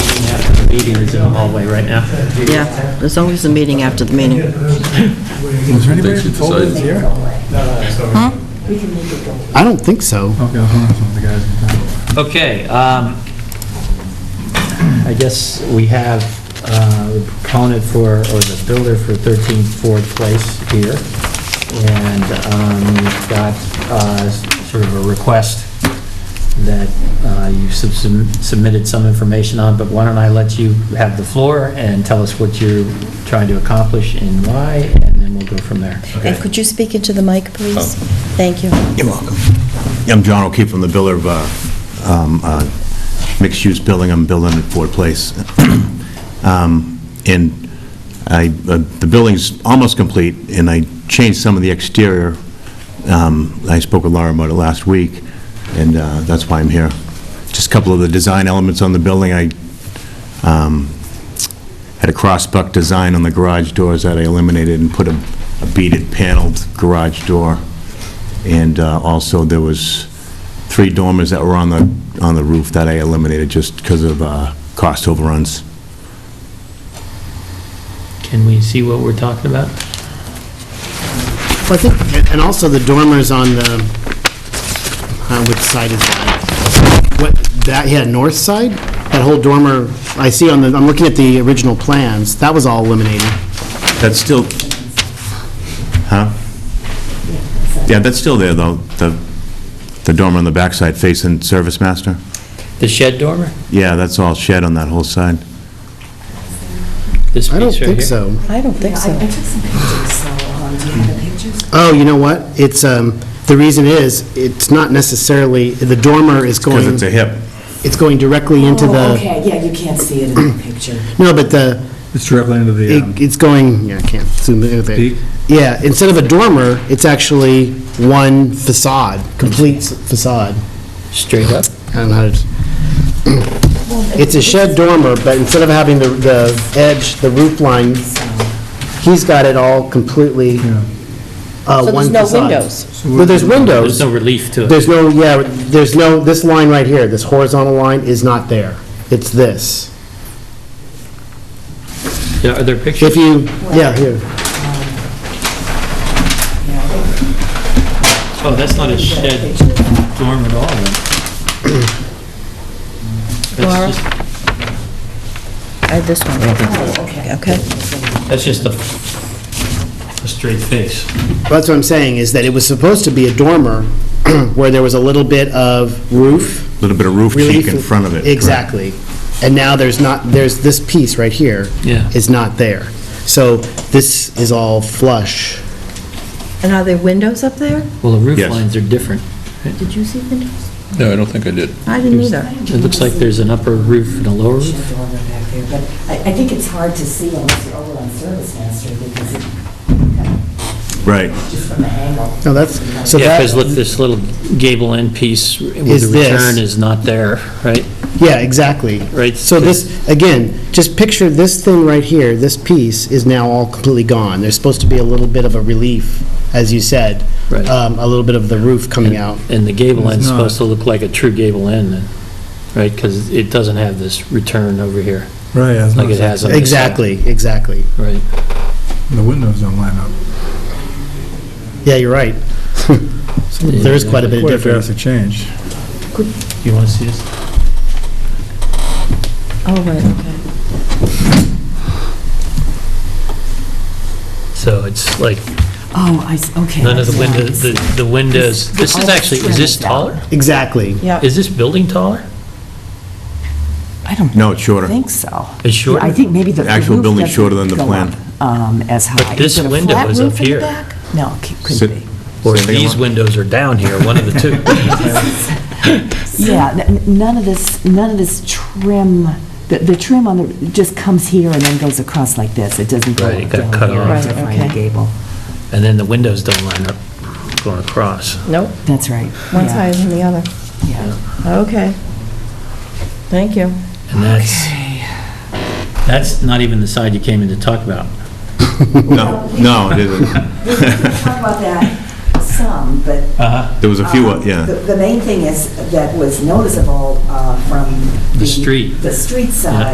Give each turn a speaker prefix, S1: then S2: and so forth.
S1: meeting is in the hallway right now.
S2: Yeah, there's always a meeting after the meeting.
S3: Is there anybody who told us here?
S4: I don't think so.
S3: Okay, I was wondering if the guys in town.
S1: Okay, um, I guess we have uh, the proponent for, or the builder for 13 Ford Place here, and um, we've got uh, sort of a request that uh, you sub- submitted some information on, but why don't I let you have the floor and tell us what you're trying to accomplish and why, and then we'll go from there.
S5: And Uh, could you speak into the mic, please? Thank you.
S6: You're welcome. I'm John O'Keefe, I'm the builder of uh, um, uh, mixed-use building, I'm building at Ford Place. Um, And I, uh, the building's almost complete, and I changed some of the exterior. Um, I spoke with Laura about it last week, and uh, that's why I'm here. Just a couple of the design elements on the building, I um, had a crossbuck design on the garage doors that I eliminated and put a a beaded paneled garage door. And uh, also, there was three dormers that were on the, on the roof that I eliminated just because of uh, cost overruns.
S1: Can we see what we're talking about?
S4: Well, I think, and- and also the dormers on the, uh, which side is that? What, that, yeah, north side? That whole dormer, I see on the, I'm looking at the original plans, that was all eliminated.
S6: That's still, huh? Yeah, that's still there, though, the, the dormer on the backside facing Service Master.
S1: The shed dormer?
S6: Yeah, that's all shed on that whole side.
S1: This
S4: I don't
S1: piece right
S4: think
S1: here?
S4: so.
S5: I don't think so.
S7: um,
S4: Oh, you know what? It's, um, the reason is, it's not necessarily, the dormer is
S6: Because
S4: going,
S6: it's a hip.
S4: it's going directly into
S7: Oh,
S4: the,
S7: okay, yeah, you can't see it in the picture.
S4: no, but the,
S3: It's directly into the, um,
S4: it- it's going, yeah, I can't zoom in with it.
S3: peak.
S4: Yeah, instead of a dormer, it's actually one facade, complete s- facade.
S1: Straight up?
S4: I don't know how to, it's a shed dormer, but instead of having the, the edge, the roof line, he's got it all completely,
S3: Yeah.
S4: uh,
S5: So
S4: one
S5: there's no
S4: facade.
S5: windows?
S4: Well, there's
S1: There's
S4: windows,
S1: no relief to it.
S4: there's no, yeah, there's no, this line right here, this horizontal line is not there. It's this.
S1: Yeah, Are there pictures?
S4: If you, yeah, here,
S1: Oh, that's not a shed dorm at all, then.
S5: Laura?
S1: That's just,
S5: I have this one. Oh, Okay.
S1: that's just a, a straight face.
S4: That's what I'm saying, is that it was supposed to be a dormer where there was a little bit of roof.
S6: Little bit of roof
S4: relief-
S6: cheek in front of it. correct.
S4: Exactly. And now there's not, there's this piece right here is
S1: Yeah.
S4: not there. So this is all flush.
S5: And are there windows up there?
S1: Well, the roof
S6: Yes.
S1: lines are different.
S5: Did you see windows?
S3: No, I don't think I did.
S5: I didn't either.
S1: It looks like there's an upper roof and a lower
S7: Shed
S1: roof.
S7: dormer back there, but I, I think it's hard to see unless you're over on Service Master because it,
S6: Right.
S7: just from the angle.
S4: No, that's, so
S1: Yeah,
S4: that,
S1: because look, this little gable end piece with the
S4: Is this.
S1: return is not there, right?
S4: yeah, exactly.
S1: Right.
S4: So this, again, just picture this thing right here, this piece is now all completely gone. There's supposed to be a little bit of a relief, as you said.
S1: Right.
S4: Um, A little bit of the roof coming out.
S1: And the gable
S3: It's
S1: end's
S3: not.
S1: supposed to look like a true gable end, then, right? Because it doesn't have this return over here,
S3: Right, I was
S1: like it
S3: noticing.
S1: has on this side.
S4: Exactly, exactly.
S1: Right.
S3: The windows don't line up.
S4: Yeah, you're right. There is quite a bit of
S3: Quite a
S4: difference.
S3: drastic change.
S1: You want to see this?
S5: Oh, right, okay.
S1: So it's like,
S7: Oh, I, s- okay.
S1: none of the
S7: that's
S1: windows,
S7: nice.
S1: the the windows, this is
S7: All
S1: actually, is this
S7: trimmed out.
S1: taller?
S4: Exactly.
S5: Yeah.
S1: Is this building taller?
S7: I don't
S6: No, it's shorter.
S7: think so.
S1: It's
S7: Yeah, I
S1: shorter?
S7: think maybe the.
S6: The actual
S7: roof
S6: building's
S7: doesn't
S6: shorter than the
S7: go
S6: plan.
S7: up, Um, as high.
S1: But this
S7: Is it a
S1: window
S7: flat
S1: is
S7: roof
S1: up
S7: in the
S1: here.
S7: back? No, it
S6: Sit-
S7: couldn't be.
S1: Or
S6: Same thing
S1: these
S6: on-
S1: windows are down here, one of the two.
S7: Yeah, n- n- none of this, none of this trim, the, the trim on the, just comes here and then goes across like this. It doesn't go
S1: Right, it
S7: up
S1: got
S7: down
S1: cut
S7: here
S1: off.
S7: as a
S5: Right,
S7: final
S5: okay.
S7: gable.
S1: And then the windows don't line up going across.
S5: Nope,
S7: That's right.
S5: one
S7: yeah,
S5: side than the other.
S7: Yeah.
S5: Okay. Thank you.
S1: And that's, that's not even the side you came in to talk about.
S6: No, no, it isn't.
S7: We can talk about that some, but. um,
S1: Uh-huh.
S6: There was a few, uh,
S7: The
S6: yeah.
S7: the main thing is, that was noticeable uh, from.
S1: The street.
S7: The street side